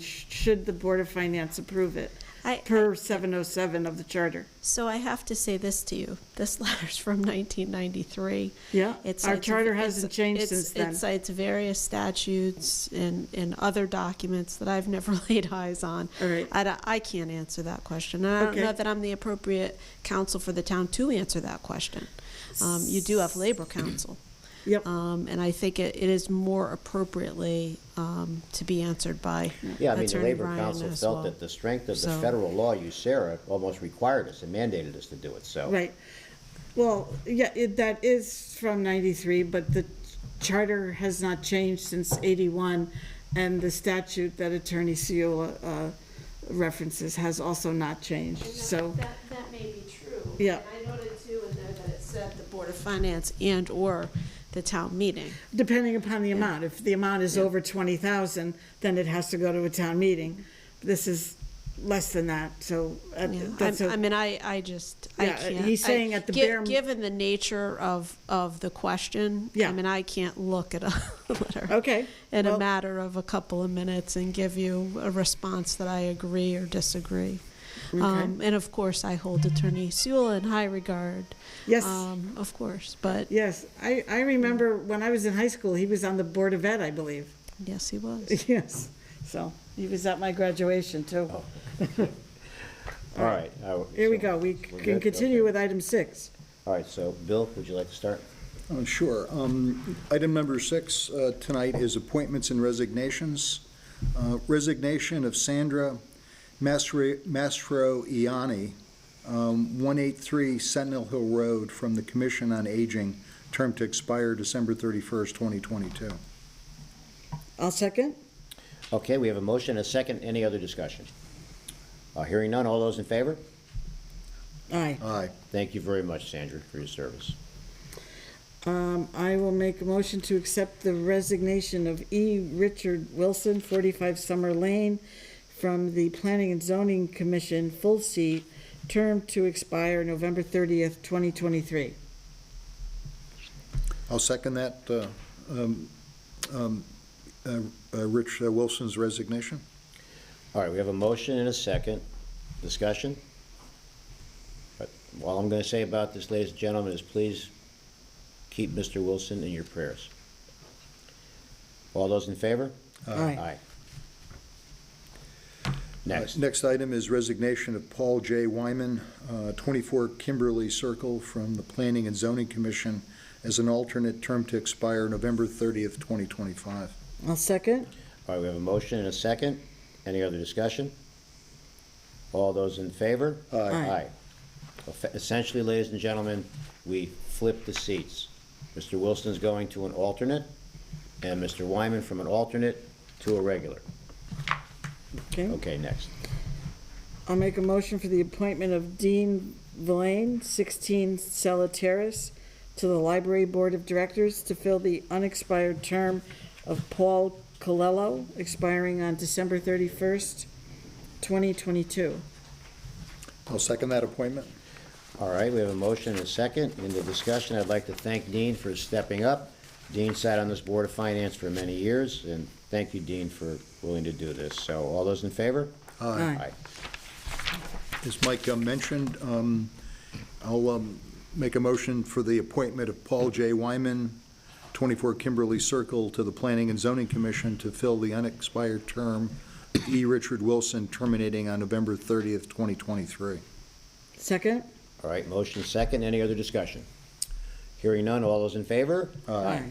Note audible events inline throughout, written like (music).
should the Board of Finance approve it I, per 707 of the charter. so I have to say this to you. This (laughs) letter's from 1993. Yeah, It our cites- charter it's- hasn't changed it's- since then. It cites various statutes and, and other documents that I've (laughs) never laid eyes on. All right. I, don't- I can't answer that question. And I don't Okay. know that I'm the appropriate counsel for the town to answer that question. Um, you do (clears throat) have labor counsel. Yep. Um, and I think it, it is more appropriately, um, to be answered by Yeah, I mean, the Attorney Labor Ryan Council as felt well. that the strength of the So- federal law, USERA, almost required us and mandated us to do it, so. Right. Well, yeah, it, that is from 93, but the charter has not changed since 81, and the statute that Attorney Seola uh, references has also not changed, And that- so, That, that may be true. Yeah. And I noted too in there that it said the Board of Finance and/or the town meeting. depending upon the amount, if the amount is over 20,000, then it has to go to a town meeting. This is less than that, so uh, Yeah, that's I'm- I a, mean, I, I just, I Yeah, can't. he's I- saying at the gi- bare- Given the nature of, of the question. Yeah. I mean, I can't look at a (laughs) letter. okay. In well- a matter of a couple of minutes and give you a response that I agree or disagree. Um, And of course, I hold Attorney Sewell in high regard. Yes. um, Of course, but Yes, I, I remember when I was in high school, he was on the Board of Ed, I believe. (laughs) yes, he was. Yes, so he was at my graduation too. All right. all right, Here we Oh, so go, we we're can good? continue Okay. with item six. All right, so, Bill, would you like to start? Uh, Sure. Um, Item number six uh, tonight is appointments and resignations. Uh, Resignation of Sandra Mastro um, Iani, 183 Sentinel Hill Road, from the Commission on Aging, term to expire December 31st, 2022. I'll second. Okay, we have a motion, and a second, any other discussion? Uh, Hearing none, all those in favor? Aye. Aye. Thank you very much, Sandra, for your service. Um, I will make a motion to accept the resignation of E. Richard Wilson, 45 Summer Lane, from the Planning and Zoning Commission, full seat, term to expire November 30th, 2023. I'll second that, uh, um, um, uh, uh, Rich uh, Wilson's resignation. All right, we have a motion and a second. Discussion? But all I'm going to say about this, ladies and gentlemen, is please keep Mr. Wilson in your prayers. All those in favor? Aye. Aye. Next. Uh, Next item is resignation of Paul J. Wyman, uh, 24 Kimberly Circle, from the Planning and Zoning Commission as an alternate term to expire November 30th, 2025. I'll second. All right, we have a motion and a second. Any other discussion? All those in favor? Aye. Aye. Effe- Essentially, ladies and gentlemen, we flip the seats. Mr. Wilson's going to an alternate, and Mr. Wyman from an alternate to a regular. Okay. Okay, next. I'll make a motion for the appointment of Dean Villain, 16 Sella Terrace, to the Library Board of Directors to fill the unexpired term of Paul Colello, expiring on December 31st, 2022. I'll second that appointment. All right, we have a motion and a second. In the discussion, I'd like to thank Dean for stepping up. Dean sat on this Board of Finance for many years, and thank you, Dean, for willing to do this. So all those in favor? Aye. As Mike uh, mentioned, um, I'll um, make a motion for the appointment of Paul J. Wyman, 24 Kimberly Circle, to the Planning and Zoning Commission to fill the unexpired term of E. Richard Wilson, terminating on November 30th, 2023. Second? All right, motion second, any other discussion? Hearing none, all those in favor? Aye.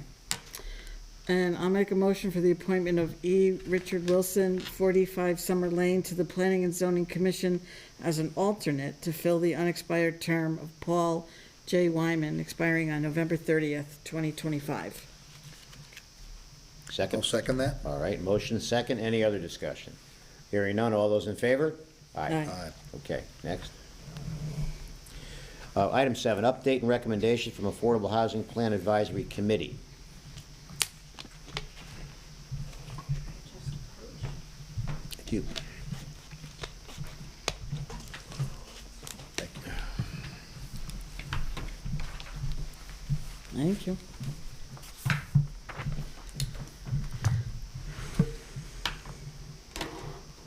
And I'll make a motion for the appointment of E. Richard Wilson, 45 Summer Lane, to the Planning and Zoning Commission as an alternate to fill the unexpired term of Paul J. Wyman, expiring on November 30th, 2025. I'll Second, second that. all right, motion second, any other discussion? Hearing none, all those in favor? Aye. Aye. Okay, next. Uh, Item seven, update and recommendation from Affordable Housing Plan Advisory Committee. Thank you. Thank you.